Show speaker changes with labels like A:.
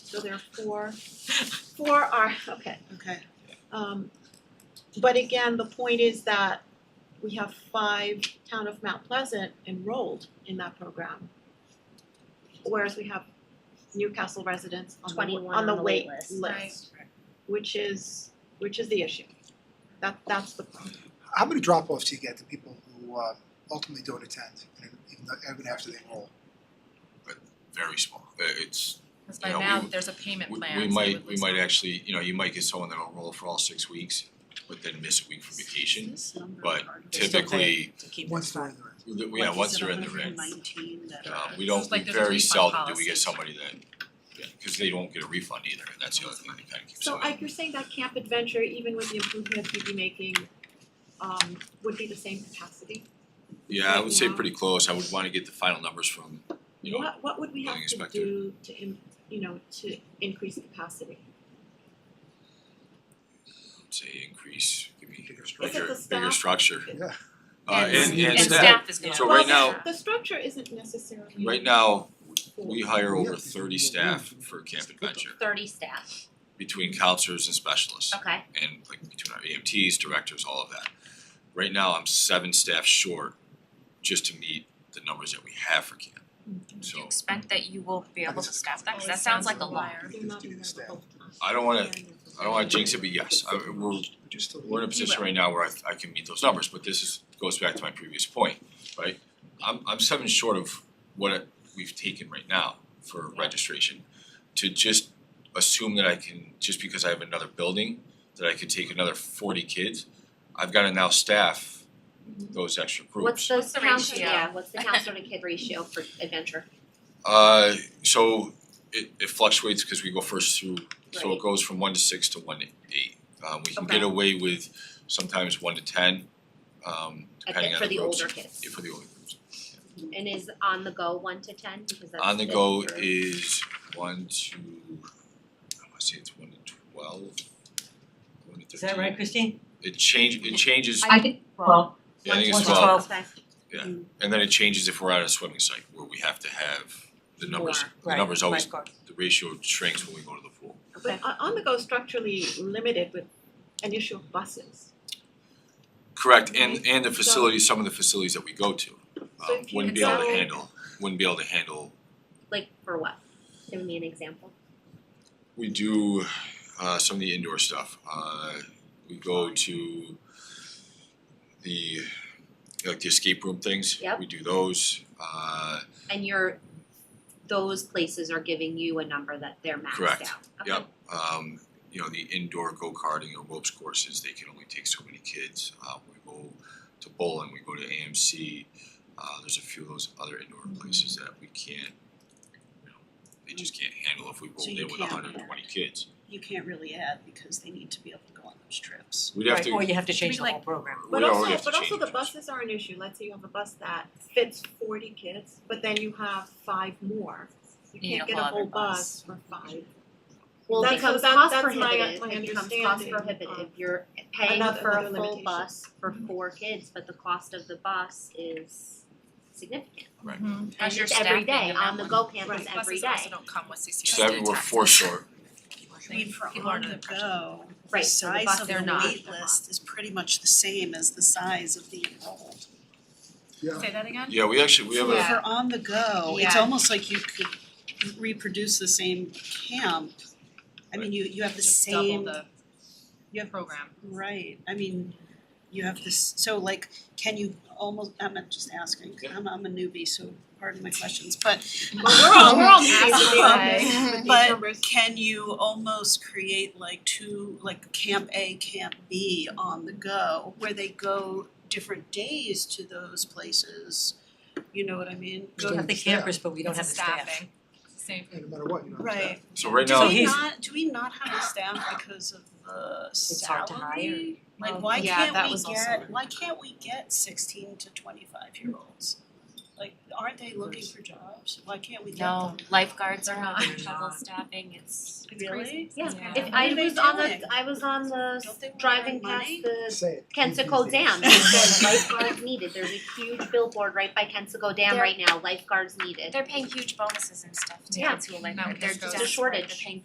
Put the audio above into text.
A: So there are four, four are, okay.
B: Okay.
A: Um but again, the point is that we have five town of Mount Pleasant enrolled in that program. Whereas we have Newcastle residents on the wa-
C: 21
A: on the wait
C: list.
A: list, which is which is the issue. That that's the problem.
D: How many drop-offs do you get to people who um, ultimately don't attend, and even though, even after they enroll?
E: very small. Uh, It's,
F: Cause by
E: You know,
F: now,
E: we-
F: there's a payment
E: we
F: plan,
E: we
F: so
E: might,
F: would
E: we
F: lose
E: might
F: out.
E: actually, you know, you might get someone that'll roll for all six weeks, but then miss a week for vacation. but
B: They're still
E: Typically,
B: To keep
D: Once they're in the room.
E: the- yeah, once they're in the red, um, we don't,
F: It's like
E: we
F: there's a
E: very
F: refund
E: seldom do we get
F: policy.
E: somebody that, yeah, cause they won't get a refund either, and that's the other thing that kinda keeps
A: So
E: it-
A: Ike, you're saying that Camp Adventure, even with the improvements we'd be making, um would be the same capacity?
E: Yeah, I would say
A: Yeah.
E: pretty close. I would wanna get the final numbers from, you know,
A: What what would we have
E: building
A: to
E: inspector.
A: do to im- you know, to increase capacity?
E: say increase, give me
D: Bigger
A: structure.
E: bigger,
A: Is it the
E: bigger
A: staff?
E: structure.
D: Yeah.
E: Uh, and
D: And
E: and staff,
F: staff is gonna.
E: So
A: Well,
E: right now-
A: the- the structure isn't necessarily.
E: right now,
A: full.
E: we hire
D: Yeah,
E: over
D: it's
E: thirty
D: just-
E: staff for Camp Adventure
C: Thirty staff,
E: between counselors and specialists.
C: okay,
E: and like between our EMTs, directors, all of that. Right now, I'm seven staff short just to meet the numbers that we have for camp.
F: Do you
E: So
F: expect that you will be able to staff that? Cause that
D: Always
F: sounds like a
D: sounds
F: lot.
D: like
A: They're not
D: Fifty
A: in
D: staff.
A: the-
E: I don't wanna, I don't wanna jinx it, but yes, I, we're,
D: But you're still.
E: we're in a position right now where I, I can meet those numbers, but this is, goes back to my previous point, right? I'm, I'm seven short of what we've taken right now for registration. To just assume that I can, just because I have another building, that I could take another forty kids, I've gotta now staff those extra groups.
C: what's those
F: What's the
C: counselor,
F: ratio?
C: yeah, what's the counselor to kid ratio for adventure?
E: Uh, so it it fluctuates because we go first through, so
C: Right.
E: it goes from one to six to one to eight. Um, we can
C: Okay.
E: get away with sometimes one to ten, um,
C: At
E: depending
C: the-
E: on
C: for
E: the
C: the
E: groups.
C: older kids,
E: Yeah, for the older groups.
C: and is on the go one to ten, because that's
E: On the
C: good
E: go
C: for-
E: is one to, I wanna say it's one to twelve, one to thirteen.
B: Is that right, Christine?
E: It change, it changes,
G: I think, well,
E: yeah, I think
B: one
E: it's
B: to
E: twelve,
C: Okay,
E: and then it changes if we're at a swimming site where we have to have the numbers,
C: More.
E: the numbers always,
B: Right, lifeguard.
E: the ratio shrinks when we go to the pool.
C: okay,
A: But on on the go structurally limited with an issue of buses.
E: Correct, and
A: Right?
E: and the facilities, some of the facilities that we go to,
A: So
E: um
A: if you
E: wouldn't be able to
A: consolidate-
E: handle, wouldn't be able to handle.
C: like for what? Give me an example.
E: We do uh some of the indoor stuff, uh we go to the like the escape room things,
C: Yep.
E: we do those, uh
C: And you're, those places are giving you a number that they're maxed out,
E: Correct.
C: okay?
E: Yep, um, you know, the indoor go-karting or ropes courses, they can only take so many kids. Uh, we go to bowling, we go to AMC. Uh, there's a few of those other indoor places that we can't, you know, they just can't handle if we roll
B: So you
E: in with
B: can't.
E: hundred and twenty kids.
B: You can't really add because they need to be able to go on those trips.
E: We'd have to,
B: Or
E: we'd
B: you have to
F: Should we,
B: change the
F: like-
B: whole program.
A: But
E: already
A: also,
E: have to
A: but also
E: change
A: the
E: it.
A: buses are an issue, let's say you have a bus that fits forty kids, but then you have five more. You
F: You need
A: can't
F: a
A: get a
F: whole
A: whole
F: other
A: bus
F: bus.
A: for five.
C: Well,
A: That's-
C: it becomes
A: that-
C: cost
A: that's my-
C: prohibitive,
A: my
C: it becomes cost
A: understanding
C: prohibitive,
A: of-
C: you're paying
A: Another-
C: for
A: another
C: a full
A: limitation.
C: bus for four kids, but the cost of the bus is significant.
F: How's your
C: And it's every
F: staffing
C: day,
F: in that
C: on the
F: one?
C: go campus
A: Right.
F: Buses
C: every day.
F: also don't come with CCSD
E: so that we were
F: taxes.
E: four short.
B: mean, for
F: People are
B: on
F: under
B: the
F: the pressure.
B: go, the
C: Right, so the bus
B: size of
F: they're
B: the
F: not-
B: wait
F: they're not.
B: list is pretty much the same as the size of the enrolled.
D: Yeah,
F: Say that again?
E: Yeah, we actually, we have
F: Yeah.
E: a,
B: For on the go, it's
F: Yeah.
B: almost like you could reproduce the same camp. I mean, you you have the
F: Just double
B: same,
F: the
B: you have
F: program.
B: Right, I mean, you have this, so like, can you almost, I'm not just asking,
E: Yeah.
B: I'm I'm a newbie, so pardon my questions, but
A: Well, we're all, we're all
B: Yeah.
A: newbies with these- with these
B: But-
A: numbers.
B: can you almost create like two, like camp A, camp B on the go, where they go different days to those places? You know what I mean?
D: We don't
B: Go-
D: have the campers,
B: but we
F: It's a staffing. It's the Same.
D: no matter what, you know.
B: Right,
E: so right
B: do
E: now,
B: we
D: he's-
B: not, do we not have a staff because of the
H: It's hard to hire.
B: salary?
F: Oh,
B: Like, why
F: yeah,
B: can't
F: that
B: we
F: was also
B: get,
F: one.
B: why can't we get sixteen to twenty-five year olds? Like, aren't they looking for jobs? Why can't we get
F: No,
B: them?
F: lifeguards are on
H: They're
F: double
H: not.
F: staffing, it's it's
B: Really?
F: crazy.
C: Yeah,
F: Yeah.
C: if
B: What
C: I
B: are they
C: was on
B: doing?
C: the, I was on the
B: Don't they want
C: driving
B: our
C: past
B: money?
C: the
D: Say it.
C: Kensico Dam, it said lifeguards needed, there's a huge billboard right by Kensico Dam
F: They're-
C: right now, lifeguards needed.
G: they're paying huge bonuses and stuff to
C: Yeah.
G: kids who are like,
F: No,
G: they're
F: there's
G: just
C: a shortage.
G: They're paying